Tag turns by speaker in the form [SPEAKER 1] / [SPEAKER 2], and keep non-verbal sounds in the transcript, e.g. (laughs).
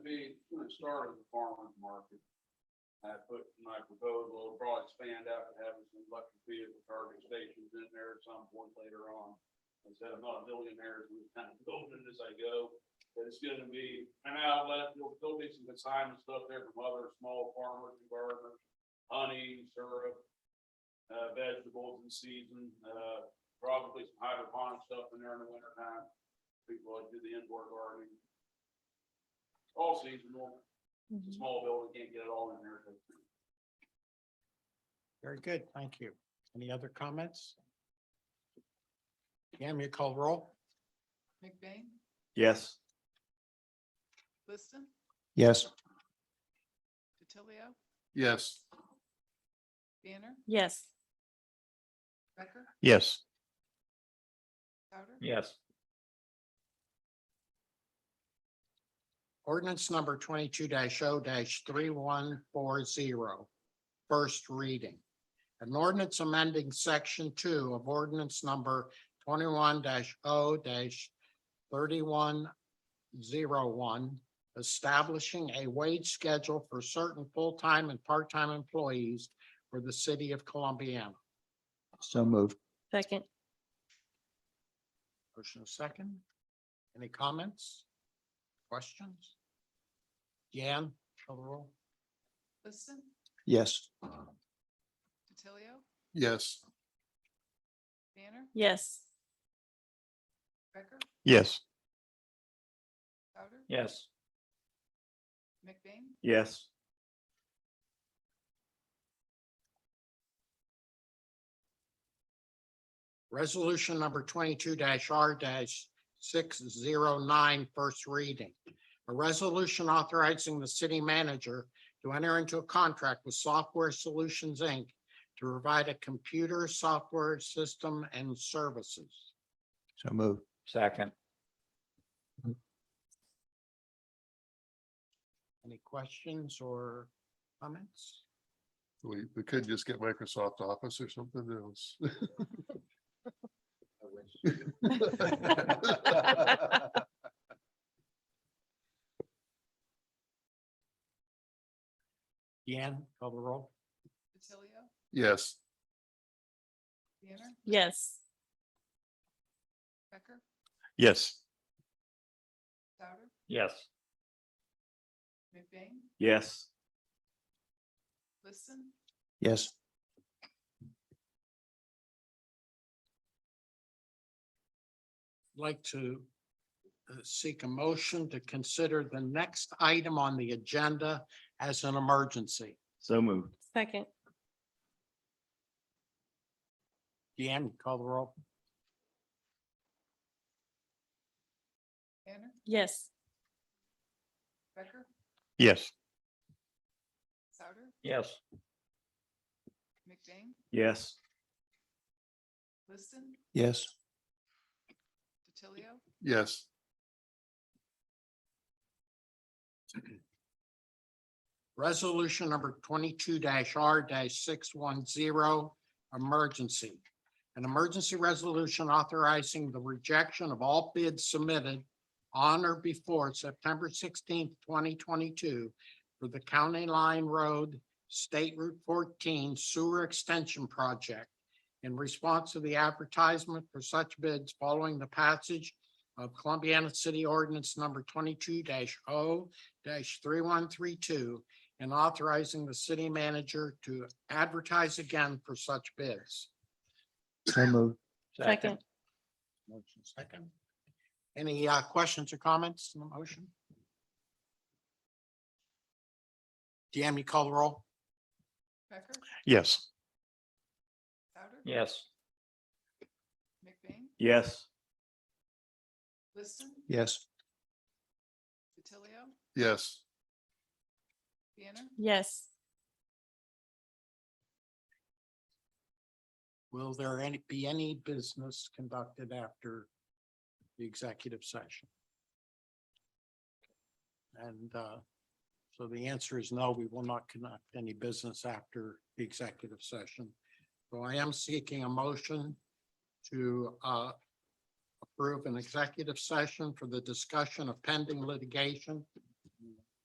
[SPEAKER 1] started the farmer's market. I put in my proposal, it'll probably expand out to having some electric vehicle charging stations in there at some point later on. I said, I'm not a millionaire, so we're kind of building as I go, but it's gonna be an outlet, there'll, there'll be some consignment stuff there from other small farmers and gardeners. Honey, syrup, uh, vegetables in season, uh, probably some hydroponic stuff in there in the winter time. People like to do the indoor gardening. All season long. It's a small building, can't get it all in there. so.
[SPEAKER 2] Very good, thank you. Any other comments? Yam, you call roll?
[SPEAKER 3] McBain,
[SPEAKER 4] Yes.
[SPEAKER 3] Liston,
[SPEAKER 2] Yes.
[SPEAKER 3] DiTilio,
[SPEAKER 5] yes,
[SPEAKER 3] Banner,
[SPEAKER 6] yes,
[SPEAKER 3] Becker,
[SPEAKER 4] Yes.
[SPEAKER 3] Souter.
[SPEAKER 4] Yes.
[SPEAKER 2] Ordinance number twenty-two 0 three one four zero. First reading. An ordinance amending section two of ordinance number twenty-one 0 thirty-one zero one, establishing a wage schedule for certain full-time and part-time employees for the city of Columbiana.
[SPEAKER 4] So moved.
[SPEAKER 6] second,
[SPEAKER 2] Motion is second. Any comments? Questions? Jan, call the roll.
[SPEAKER 3] Liston,
[SPEAKER 4] Yes.
[SPEAKER 3] DiTilio,
[SPEAKER 5] yes,
[SPEAKER 3] Banner,
[SPEAKER 6] yes,
[SPEAKER 3] Becker,
[SPEAKER 4] Yes.
[SPEAKER 3] Souter,
[SPEAKER 4] Yes.
[SPEAKER 3] McBain,
[SPEAKER 4] Yes.
[SPEAKER 2] Resolution number twenty-two R six zero nine, first reading. A resolution authorizing the city manager to enter into a contract with Software Solutions, Inc. to provide a computer software system and services.
[SPEAKER 4] So moved. Second.
[SPEAKER 2] Any questions or comments?
[SPEAKER 5] we, we could just get Microsoft Office or something (laughs) else.
[SPEAKER 2] Deanne, call the roll.
[SPEAKER 3] DiTilio,
[SPEAKER 5] (laughs) Yes,
[SPEAKER 3] Banner,
[SPEAKER 6] yes,
[SPEAKER 3] Becker,
[SPEAKER 4] Yes.
[SPEAKER 3] Souter,
[SPEAKER 4] Yes.
[SPEAKER 3] McBain,
[SPEAKER 4] Yes.
[SPEAKER 3] Liston,
[SPEAKER 4] Yes.
[SPEAKER 2] like to uh, seek a motion to consider the next item on the agenda as an emergency.
[SPEAKER 4] So moved.
[SPEAKER 6] second,
[SPEAKER 2] Deanne, call the roll.
[SPEAKER 3] Banner,
[SPEAKER 6] yes,
[SPEAKER 3] Becker,
[SPEAKER 4] Yes.
[SPEAKER 3] Souter,
[SPEAKER 4] Yes.
[SPEAKER 3] McBain,
[SPEAKER 4] Yes.
[SPEAKER 3] Liston,
[SPEAKER 4] Yes.
[SPEAKER 3] DiTilio,
[SPEAKER 5] yes,
[SPEAKER 2] Resolution number twenty-two R six one zero, emergency. An emergency resolution authorizing the rejection of all bids submitted on or before September sixteenth, twenty twenty-two for the County Line Road State Route fourteen Sewer Extension Project in response to the advertisement for such bids following the passage of Columbiana City Ordinance number twenty-two 0 three one three two and authorizing the city manager to advertise again for such bids.
[SPEAKER 4] So moved.
[SPEAKER 6] second,
[SPEAKER 2] Motion second. Any uh, questions or comments on the motion? DM, you call the roll?
[SPEAKER 3] Becker,
[SPEAKER 4] Yes.
[SPEAKER 3] Souter,
[SPEAKER 4] Yes.
[SPEAKER 3] McBain,
[SPEAKER 4] Yes.
[SPEAKER 3] Liston,
[SPEAKER 4] Yes.
[SPEAKER 3] DiTilio,
[SPEAKER 5] yes,
[SPEAKER 3] Banner,
[SPEAKER 6] yes,
[SPEAKER 2] Will there any, be any business conducted after the executive session? And uh, so the answer is no, we will not conduct any business after the executive session. So I am seeking a motion to uh, approve an executive session for the discussion of pending litigation